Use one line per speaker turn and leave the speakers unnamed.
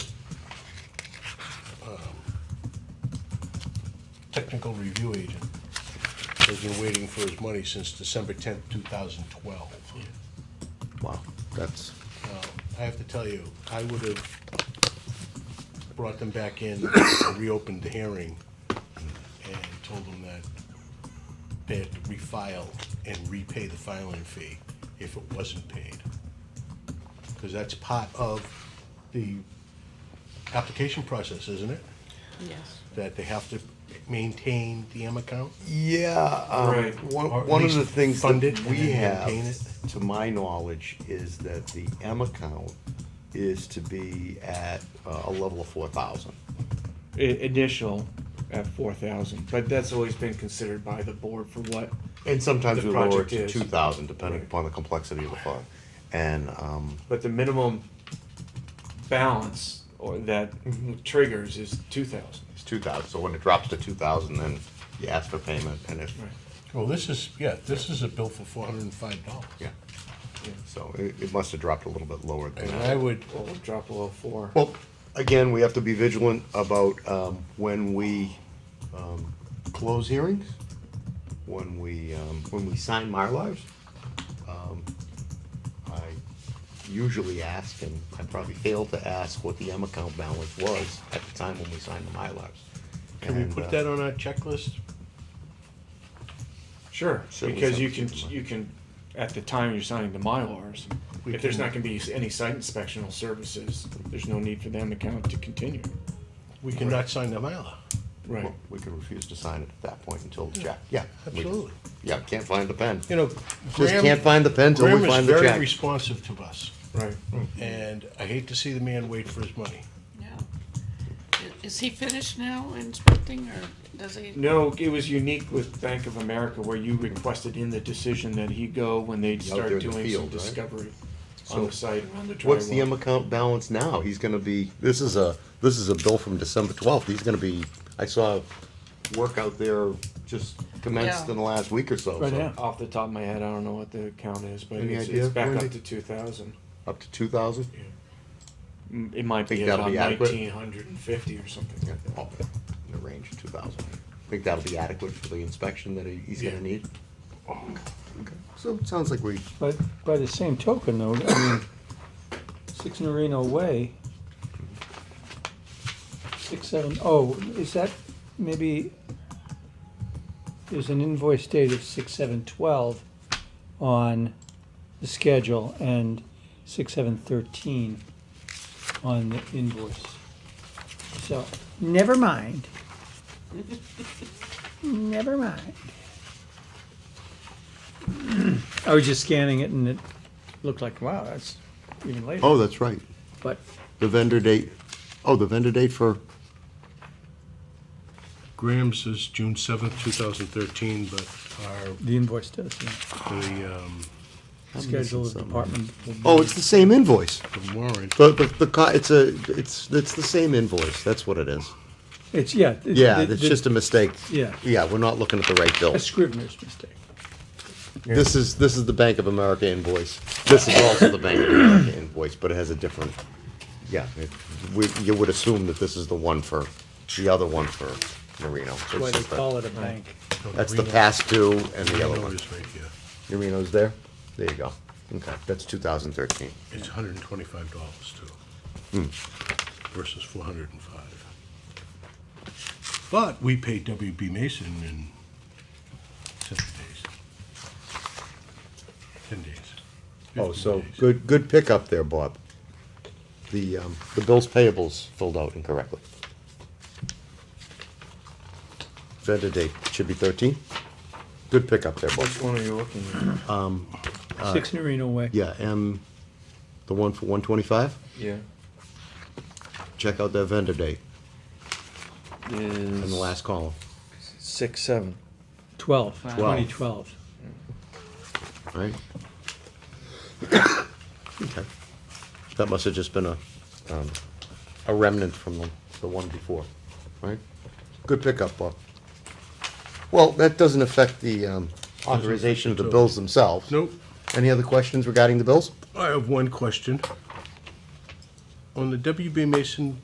technical review agent has been waiting for his money since December tenth, two thousand twelve. Um,
Wow, that's,
I have to tell you, I would have brought them back in, and reopened the hearing, and told them that they had to refile and repay the filing fee if it wasn't paid. Because that's part of the application process, isn't it?
Yes.
That they have to maintain the M account?
yeah, um,
Right.
one,
Or at
one of
least
the things
fund
that
it and
we
then
have,
maintain
to my knowledge, is that the M account is to be at uh, a level of four thousand.
I- initial at four thousand, but that's always been considered by the board for what.
And sometimes
The
we lower it
project
to
is.
two thousand, depending
Right.
upon the complexity of the fund. And, um,
But the minimum balance or that
Mm-hmm.
triggers is two thousand.
it's two thousand, so when it drops to two thousand, then you ask for payment, and if,
Well, this is, yeah, this is a bill for four hundred and five dollars.
yeah. So it, it must have dropped a little bit lower than
And
that.
I would,
Well, we'll drop below four.
Well, again, we have to be vigilant about um, when we um, close hearings, when we, um, when we sign Mylars. Um, I usually ask, and I probably failed to ask, what the M account balance was at the time when we signed the Mylars.
can we
And,
put
uh,
that on our checklist?
Sure,
Certainly
because you
something
can,
to keep in
you can, at the time you're signing the Mylars,
We
if there's
can-
not gonna be any site inspectional services, there's no need for them account to continue.
We cannot sign the Mylar.
Right.
well, We can refuse to sign it at that point until the check, yeah. we can-
Absolutely.
Yeah, can't find the pen.
You know,
Just
Graham.
can't find the pen till we
Graham is
find the
very
check.
responsive to us,
Right.
and I hate to see the man wait for his money.
Yeah. I- Is he finished now inspecting or does he?
No, it was unique with Bank of America where you requested in the decision that he go when they
there
start
in the
doing some
field, right?
discovery
So,
on the site around the drywall.
What's the M account balance now? He's gonna be, this is a, this is a bill from December twelfth, he's gonna be, I saw work out there just commenced
Yeah.
in the last week or so,
Right
so,
now, off the top of my head, I don't know what the count is, but
Any
it's,
idea,
it's back
Wendy?
up to two thousand.
up to two thousand?
Mm, It might
Think
be
that'll
about
be adequate?
nineteen hundred and fifty or something
In
like that.
the range of two thousand. Think that'll be adequate for the inspection that he- he's
Yeah.
gonna need? Okay. So it sounds like we,
But by the same token, though, I mean, Six Norino Way, six seven, oh, is that maybe, there's an invoice date of six seven twelve on the schedule and six seven thirteen on the invoice. So, never mind. Never mind. I was just scanning it and it looked like, wow, that's even later.
oh, that's right,
But
the vendor date, oh, the vendor date for,
Graham's is June seventh, two thousand thirteen, but our,
the invoice does, yeah.
the, um,
Schedule of
something.
department.
oh, it's the same invoice.
the warrant.
The, the, the, co- it's a, it's, it's the same invoice, that's what it is.
It's, yeah. it-
Oh, Yeah,
the-
it's
the-
just a mistake.
Yeah.
Yeah, we're not looking at the right bill.
A scrivener's mistake.
This is, this is the Bank of America invoice. This is also the Bank of America invoice, but it has a different, yeah. it- We, you would assume that this is the one for, the other one for Marino. It's
That's why they
just a-
call it a bank.
That's the past due and the other
Reno
one.
is right here.
Marino's there? There you go. Okay, that's two thousand thirteen.
It's hundred and twenty-five dollars too.
Hmm.
Versus four hundred and five. But we paid WB Mason in seven days. Ten days. 15
Oh, so,
days.
good, good pickup there, Bob. The, um, the bills payables filled out incorrectly. Vendor date should be thirteen. Good pickup there, Bob.
Which one are you looking at?
Six Norino Way.
Yeah, M, the one for one twenty-five,
Yeah.
check out that vendor date in
Is
the last column.
six, seven.
Twelve,
Twelve.
twenty twelve.
right? Okay. That must have just been a, um, a remnant from the, the one before, right? Good pickup, Bob. Well, that doesn't affect the, um, authorization of the bills themselves.
Nope.
Any other questions regarding the bills?
I have one question. On the WB Mason